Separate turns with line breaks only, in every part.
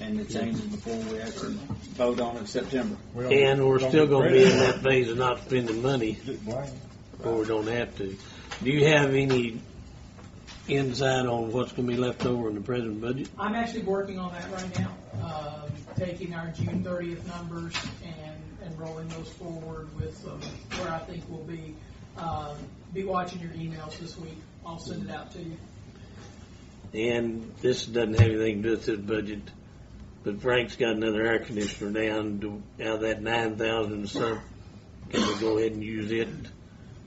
and to change it before we actually vote on it in September.
We don't-
And we're
don't
still gonna be in that
credit.
phase of not spending money,
Right.
or we don't have to. Do you have any insight on what's gonna be left over in the present budget?
I'm actually working on that right now, um, taking our June thirtieth numbers and, and rolling those forward with um, where I think we'll be. Um, Be watching your emails this week. I'll send it out to you.
And this doesn't have anything to do with this budget, but Frank's got another air conditioner down, Do- out of that nine thousand some. Can we go ahead and use it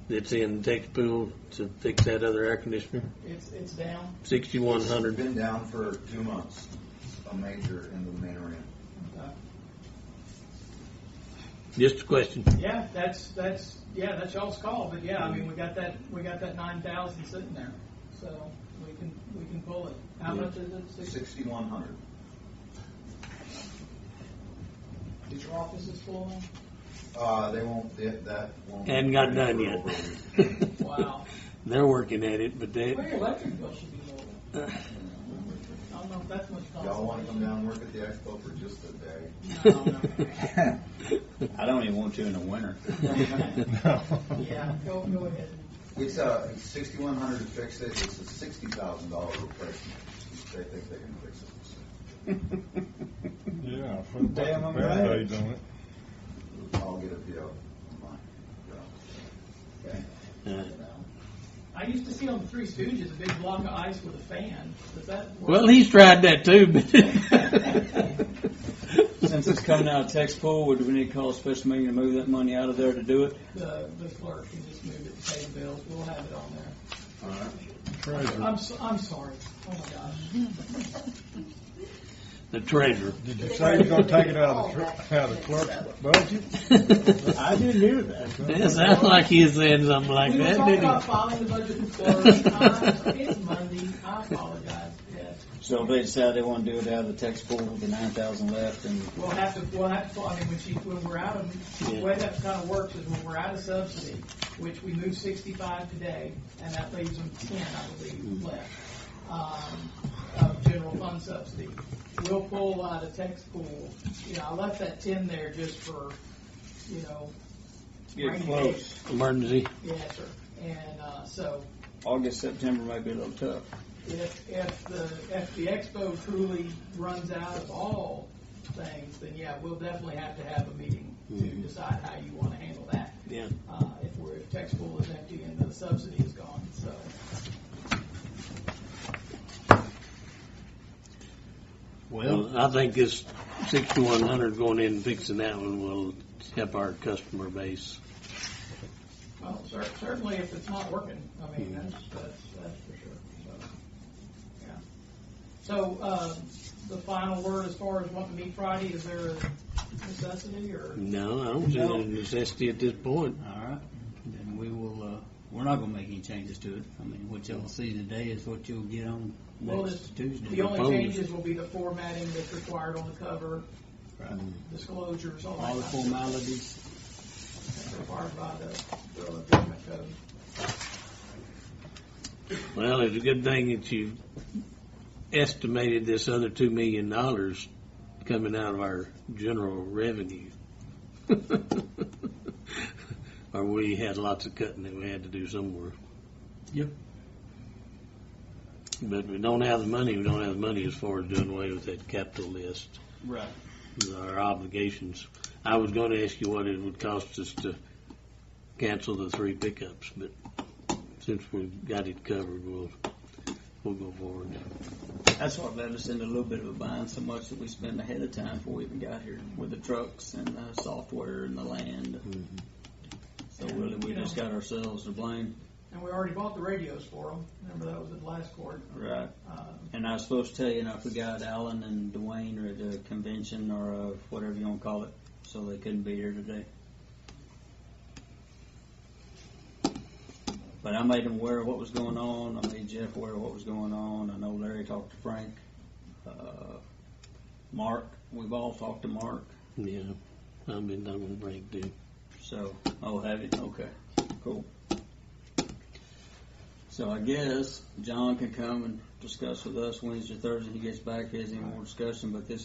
that's in Texas Pool to fix that other air conditioner?
It's, it's down.
Sixty-one
We've
hundred.
been down for two months, a major in the main arena.
Uh,
Just a question.
Yeah, that's, that's, yeah, that's y'all's call, but yeah, I mean, we got that, we got that nine thousand sitting there, so we can, we can pull it. How much is it? Six-
Sixty-one hundred.
Is your offices full now?
Uh, they won't, that, that won't.
Hadn't got done
for over a week.
yet.
Wow.
They're working at it, but they,
Well, your electric bill should be lower. I don't know if that's much cost.
Y'all wanna come down and work at the expo for just a day?
No, no.
I don't even want to in the winter.
Yeah, go, go ahead.
It's a sixty-one hundred to fix it, it's a sixty thousand dollar replacement. They think they can fix it.
Yeah, put a
Damn,
fucking
I'm right.
Band-Aid on it.
I'll get a PO. Mine.
I used to see on the Three Stooges, a big block of ice with a fan. Does that work?
well, he's tried that too, but.
Since it's coming out of tax pool, would we need to call a special meeting to move that money out of there to do it?
The, the clerk can just move it to pay the bills. We'll have it on there.
All right.
Treasure.
I'm, so- I'm sorry. Oh my gosh.
The treasurer.
Did you say you're gonna take it out of the, tr- out of the clerk's budget?
I didn't hear that.
It sounds like he's saying something like
We were
that,
talking
didn't
about
he?
filing the budget and clerk. I- It's Monday. I apologize. Yes.
So if they decide they want to do it out of the tax pool with the nine thousand left and
We'll have to, we'll have to, I mean, when she, when we're out of, the
Yeah.
way that kind of works is when we're out of subsidy, which we moved sixty-five today, and that leaves them ten, I believe, left, um, of general fund subsidy. We'll pull out of tax pool, you know, I left that ten there just for, you know,
get
Rainy
close,
Emergency.
yeah, sir. And, uh, so
August, September might be a little tough.
if, if the, if the expo truly runs out of all things, then yeah, we'll definitely have to have a meeting to decide how you want to handle that.
Yeah.
uh, if we're, if tax pool is empty and the subsidy is gone, so.
Well, I think this sixty-one hundred going in and fixing that one will help our customer base.
Well, cer- certainly if it's not working, I mean, that's, that's, that's for sure, so, yeah. So, uh, the final word as far as wanting to meet Friday, is there a necessity or?
No, I don't see
No.
any necessity at this point.
All right, then we will, uh, we're not gonna make any changes to it. I mean, what y'all see today is what you'll get on
Well,
next
The
Tuesday.
only changes will be the formatting that's required on the cover,
Right.
disclosures, all
All the
that kind of
formalities,
stuff required by the Bureau of Government Code.
Well, it's a good thing that you estimated this other two million dollars coming out of our general revenue. Or we had lots of cutting that we had to do somewhere.
Yep.
But we don't have the money, we don't have the money as far as doing away with that capital list.
Right.
Our obligations. I was gonna ask you what it would cost us to cancel the three pickups, but since we've got it covered, we'll, we'll go forward.
That's what led us into a little bit of a bind, so much that we spent ahead of time before we even got here with the trucks and the software and the land.
Mm-hmm.
So really, we just got ourselves to blame.
And we already bought the radios for them, remember that was at the last court,
Right.
uh,
And I was supposed to tell you, and I forgot Alan and Dwayne are at a convention or a, whatever you want to call it, so they couldn't be here today. But I made them aware of what was going on. I made Jeff aware of what was going on. I know Larry talked to Frank. Uh, Mark, we've all talked to Mark.
Yeah, I've been done with Frank too.
So, oh, have you? Okay, cool. So I guess John can come and discuss with us Wednesday, Thursday. He gets back, he has any more discussion, but this